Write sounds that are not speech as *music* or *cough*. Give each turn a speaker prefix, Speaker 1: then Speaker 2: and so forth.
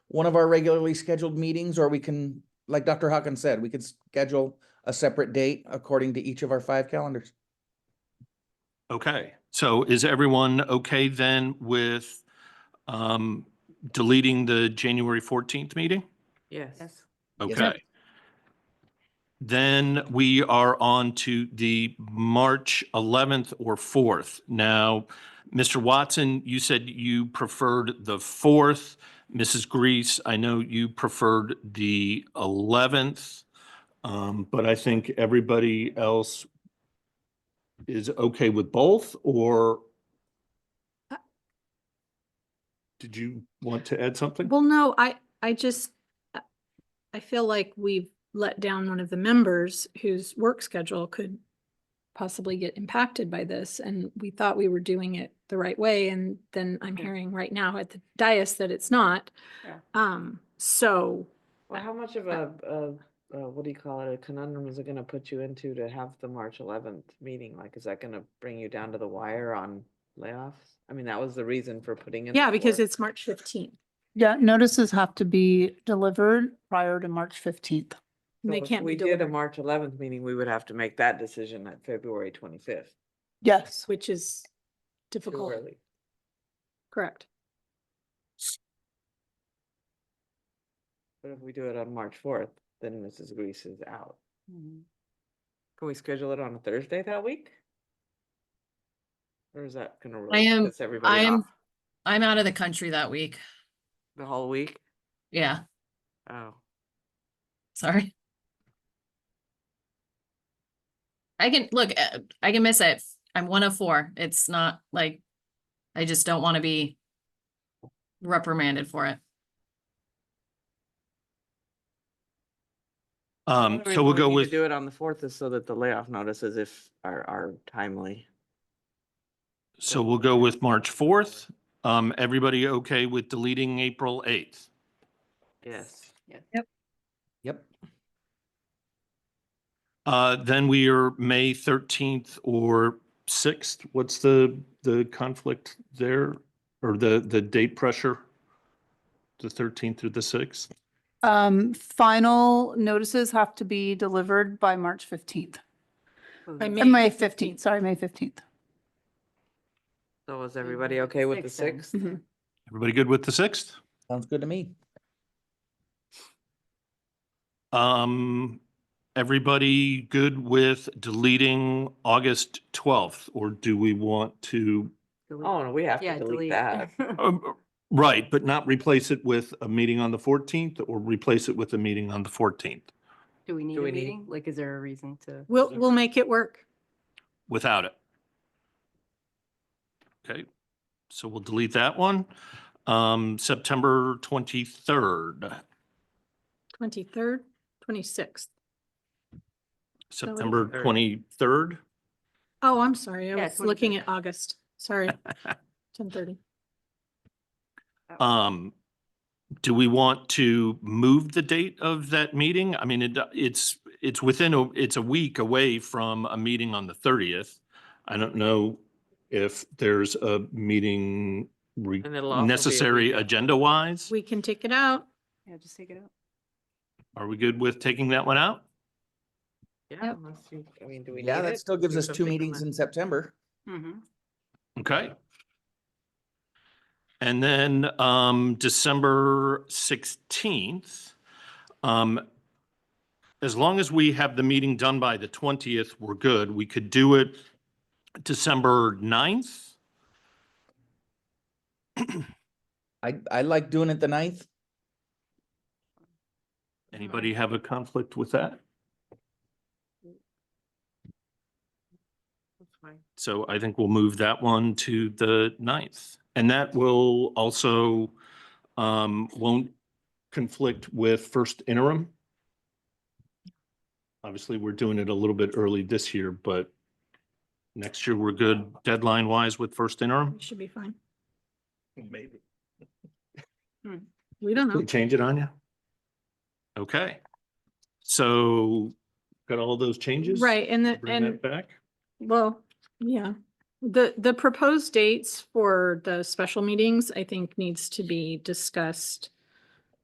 Speaker 1: one of our regularly scheduled meetings, or we can, like Dr. Hawkins said, we could schedule a separate date according to each of our five calendars.
Speaker 2: Okay, so is everyone okay then with um deleting the January fourteenth meeting?
Speaker 3: Yes.
Speaker 1: Yes, ma'am.
Speaker 2: Okay. Then we are on to the March eleventh or fourth. Now, Mr. Watson, you said you preferred the fourth. Mrs. Grease, I know you preferred the eleventh. Um, but I think everybody else is okay with both or did you want to add something?
Speaker 3: Well, no, I, I just, I- I feel like we've let down one of the members whose work schedule could possibly get impacted by this, and we thought we were doing it the right way, and then I'm
Speaker 4: Yeah.
Speaker 3: hearing right now at the dais that it's not.
Speaker 4: Yeah.
Speaker 3: Um, so,
Speaker 4: Well, how much of a, a, uh, what do you call it, a conundrum is it gonna put you into to have the March eleventh meeting? Like, is that gonna bring you down to the wire on layoffs? I mean, that was the reason for putting in. the
Speaker 3: yeah, because
Speaker 4: fourth.
Speaker 3: it's March fifteenth,
Speaker 5: Yeah, notices have to be delivered prior to March fifteenth.
Speaker 3: and
Speaker 4: So
Speaker 3: they
Speaker 4: if
Speaker 3: can't be
Speaker 4: We did a
Speaker 3: delivered,
Speaker 4: March eleventh meeting, we would have to make that decision at February twenty-fifth.
Speaker 5: Yes,
Speaker 3: which is difficult, correct?
Speaker 4: But if we do it on March fourth, then Mrs. Grease is out. Can we schedule it on a Thursday that week? Or is that gonna? really
Speaker 6: am-
Speaker 4: piss
Speaker 6: I
Speaker 4: everybody
Speaker 6: am,
Speaker 4: off
Speaker 6: I'm out of the country that week.
Speaker 4: The whole week?
Speaker 6: Yeah,
Speaker 4: Oh.
Speaker 6: sorry. I can, look, uh, I can miss it. I'm one of four. It's not like, I just don't want to be reprimanded for it.
Speaker 2: Um,
Speaker 4: The
Speaker 2: so
Speaker 4: reason
Speaker 2: we'll go
Speaker 4: need to
Speaker 2: with.
Speaker 4: Do it on the fourth is so that the layoff notices if are are timely.
Speaker 2: So we'll go with March fourth. Um, everybody okay with deleting April eighth?
Speaker 4: Yes. Yes.
Speaker 1: Yep.
Speaker 2: Uh, then we are May thirteenth or sixth. What's the, the conflict there? Or the, the date pressure? The thirteenth through the sixth?
Speaker 5: um, final notices have to be delivered by March fifteenth,
Speaker 3: By May
Speaker 5: May fifteenth, sorry, May fifteenth.
Speaker 4: So is everybody okay with the
Speaker 5: then.
Speaker 4: sixth?
Speaker 5: Mhm.
Speaker 2: Everybody good with the sixth?
Speaker 1: Sounds good to me.
Speaker 2: Um, everybody good with deleting August twelfth? Or do we want to
Speaker 4: Oh, no, we have to delete that.
Speaker 2: Um, Right, but not replace it with a meeting on the 14th or replace it with a meeting on the 14th
Speaker 7: *laughs* Do we need
Speaker 4: Do
Speaker 7: a
Speaker 4: we need-
Speaker 7: meeting? Like, is there a reason to?
Speaker 3: We'll, we'll make it work.
Speaker 2: without it. Okay, so we'll delete that one. Um, September 23rd,
Speaker 3: Twenty-third, twenty-sixth.
Speaker 2: September
Speaker 4: Third.
Speaker 2: 23rd.
Speaker 3: Oh, I'm sorry. I
Speaker 7: Yeah,
Speaker 3: was looking
Speaker 7: 23rd.
Speaker 3: at August.
Speaker 4: *laughs*
Speaker 3: Sorry. Ten thirty.
Speaker 2: Um, do we want to move the date of that meeting? I mean, it, it's, it's within, a it's a week away from a meeting on the thirtieth. I don't know if there's a meeting re-
Speaker 4: *laughs* And it'll also be a
Speaker 2: necessary
Speaker 4: weekend.
Speaker 2: agenda wise.
Speaker 3: We can take it out.
Speaker 7: Yeah, just take it out.
Speaker 2: Are we good with taking that one out?
Speaker 4: Yeah, unless you, I mean, do we?
Speaker 1: Yeah,
Speaker 4: need
Speaker 1: that
Speaker 4: it?
Speaker 1: still
Speaker 4: Is
Speaker 1: gives
Speaker 4: there
Speaker 1: us two
Speaker 4: something on
Speaker 1: meetings
Speaker 4: that?
Speaker 1: in September.
Speaker 7: Mm-hmm.
Speaker 2: Okay. And then um, December 16th. um, As long as we have the meeting done by the 20th, we're good. We could do it December 9th.
Speaker 1: I, I like doing it the ninth.
Speaker 2: Anybody have a conflict with that?
Speaker 4: That's fine.
Speaker 2: So I think we'll move that one to the 9th. And that will also, um, won't conflict with first interim. Obviously, we're doing it a little bit early this year, but next year we're good deadline wise with first interim.
Speaker 3: We should be fine.
Speaker 2: Maybe.
Speaker 3: Hmm. We don't know.
Speaker 2: Change it on you? Okay. So got all those changes?
Speaker 3: Right, and the,
Speaker 2: Bring
Speaker 3: and,
Speaker 2: that back.
Speaker 3: well, yeah. The, the proposed dates for the special meetings, I think, needs to be discussed